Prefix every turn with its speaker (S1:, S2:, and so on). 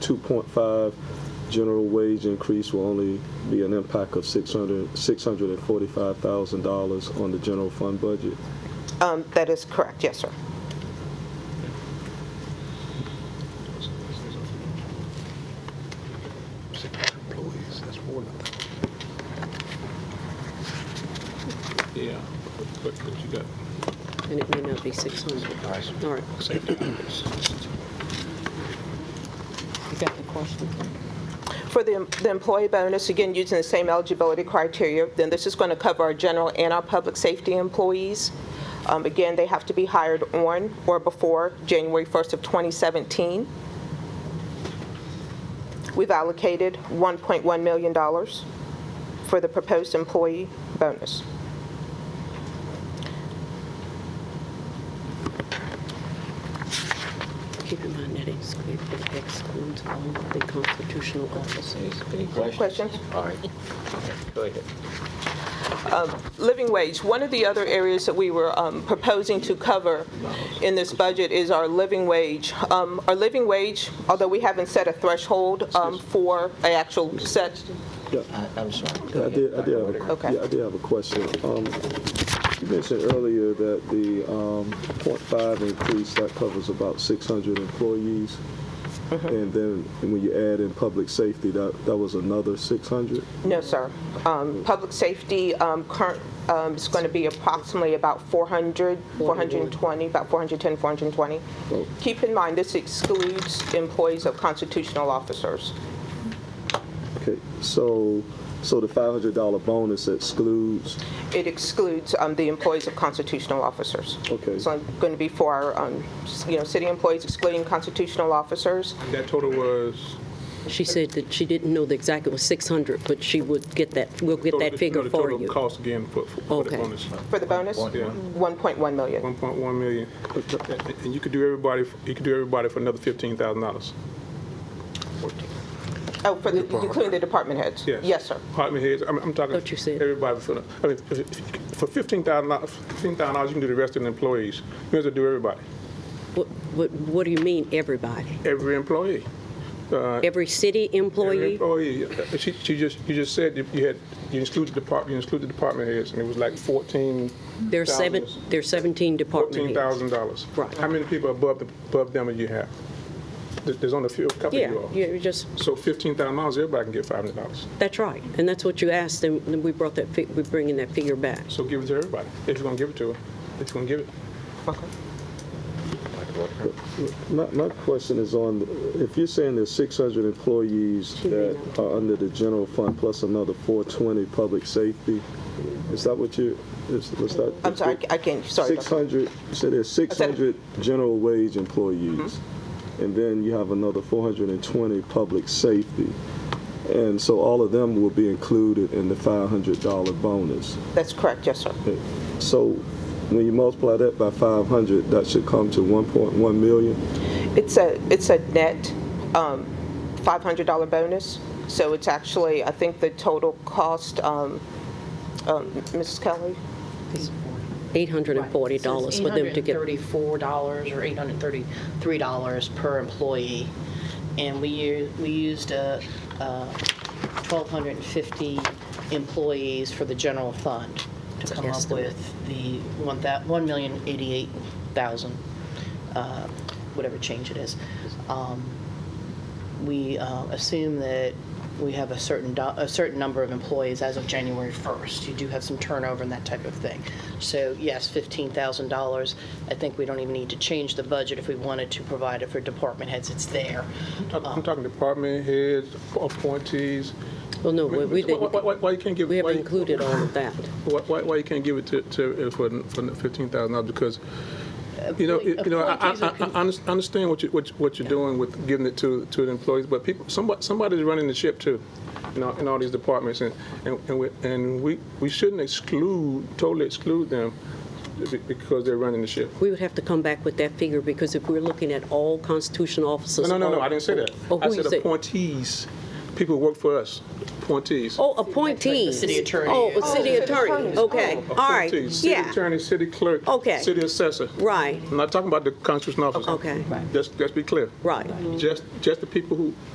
S1: two point five general wage increase will only be an impact of six hundred, six hundred and forty-five thousand dollars on the general fund budget.
S2: Um, That is correct, yes, sir.
S3: Six employees, that's more than that.
S4: Yeah, but but you got,
S5: And it may not be 600.
S3: Nice.
S5: All right,
S3: Same time.
S5: you got the question?
S2: For the the employee bonus, again, using the same eligibility criteria, then this is going to cover our general and our public safety employees. Um, Again, they have to be hired on or before January 1st of 2017. We've allocated $1.1 million for the proposed employee bonus.
S5: Keep in mind that excludes- it excludes all the constitutional officers.
S6: Any questions?
S2: Questions?
S6: All right. Go ahead.
S2: living wage, one of the other areas that we were um, proposing to cover in this budget is our living wage. Um, Our living wage, although we haven't set a threshold um, for an actual set,
S6: I- Uh, I'm sorry. Go
S1: I
S6: ahead,
S1: did, I
S6: Dr.
S1: did have
S6: Whitaker.
S1: a,
S2: Okay.
S1: yeah, I did have a question. Um, You mentioned earlier that the um, .5 increase, that covers about 600 employees.
S6: Mm-hmm.
S1: And then when you add in public safety, that, that was another 600?
S2: no, sir. Um, Public safety um, current um, is going to be approximately about 400, 420, about 410, 420. Keep in mind, this excludes employees of constitutional officers.
S1: Okay, so, so the $500 bonus excludes,
S2: It excludes um, the employees of constitutional officers.
S1: Okay.
S2: So it's going to be for, our, um, s- you know, city employees excluding constitutional officers.
S4: that total was?
S5: She said that she didn't know the exact, it was 600, but she would get that, we'll get
S4: total-
S5: that figure
S4: no, the
S5: for
S4: total
S5: you.
S4: Cost again for, for- for the
S5: Okay.
S4: bonus,
S2: For the bonus?
S4: yeah,
S2: 1.1 million.
S4: one point one million. And- And you could do everybody, you could do everybody for another fifteen thousand dollars.
S2: Oh, for the, including the department heads?
S4: Yes.
S2: sir.
S4: Department heads, I'm, I'm talking.
S5: Thought you said-
S4: Everybody for, the- I mean, if- if- for fifteen thousand dollars, fifteen thousand dollars, you can do the rest of the employees. You have to do everybody,
S5: What- What what do you mean, everybody?
S4: every employee.
S5: Every city
S4: Every
S5: employee?
S4: employee. Uh, She, she just, you just said that you had, you excluded department, you excluded department heads, and it was like fourteen.
S5: There's seven, there's 17
S4: Fourteen
S5: department heads.
S4: thousand dollars.
S5: Right.
S4: How many people above, the- above them do you have? There- There's only a few, a couple
S5: Yeah,
S4: you all.
S5: you just,
S4: So fifteen thousand dollars, everybody can get five hundred dollars.
S5: that's right. And that's what you asked, and then we brought that, fi- we're bringing that figure back.
S4: So give it to everybody, if you're gonna give it to her, if you're gonna give it.
S2: Okay.
S1: my, my question is on, if you're saying there's 600 employees that are under the general fund plus another 420 public safety, is that what you, is, was that?
S2: I'm sorry, I can't, sorry. Dr.
S1: 600, so there's 600 general wage employees,
S2: Mm-hmm.
S1: and then you have another 420 public safety. And so all of them will be included in the $500 bonus.
S2: That's correct, yes, sir.
S1: So when you multiply that by 500, that should come to 1.1 million?
S2: It's a, it's a net um, $500 bonus, so it's actually, I think the total cost, um, um, Mrs. Kelly?
S5: $840 for them to get.
S7: $834 or $833 per employee. And we u- we used uh, uh, 1,250 employees for the general fund
S5: It's
S7: to
S5: an
S7: come up
S5: estimate.
S7: with the one thou- 1,088,000, uh, whatever change it is. Um, We uh, assume that we have a certain, do- a certain number of employees as of January 1st. You do have some turnover and that type of thing. So yes, $15,000. I think we don't even need to change the budget if we wanted to provide it for department heads. It's there.
S4: I'm I'm talking department heads, appointees.
S5: Well, no, we we
S4: Why- why-
S5: didn't,
S4: Why, why you can't give?
S5: we
S4: why
S5: haven't
S4: you-
S5: included all of that.
S4: Why, why, why you can't give it to, to, uh, for, for fifteen thousand dollars, because, you know, you know, I, I,
S7: Appointees
S4: I
S7: are
S4: I
S7: con-
S4: under- understand what you, what you- what you're doing with giving it to, to the employees, but people, somebody, somebody's running the ship too, in all, in all these departments, and, and, and we, and we, we shouldn't exclude, totally exclude them be- because they're running the ship.
S5: We would have to come back with that figure, because if we're looking at all constitutional officers.
S4: No, no, no, no,
S5: all-
S4: I didn't say that.
S5: Oh,
S4: I
S5: who you
S4: said
S5: said?
S4: appointees, people who work for us, appointees.
S5: Oh, appointees.
S7: city attorney
S5: Oh,
S7: is-
S5: a city attorney, okay, all right,
S4: Oh, Appointees, City
S5: yeah,
S4: attorney, city clerk.
S5: Okay.
S4: City assessor.
S5: right,
S4: I'm not talking about the constitutional officer.
S5: Okay.
S4: Let's, let's be clear.
S5: right.
S4: Just, just the people who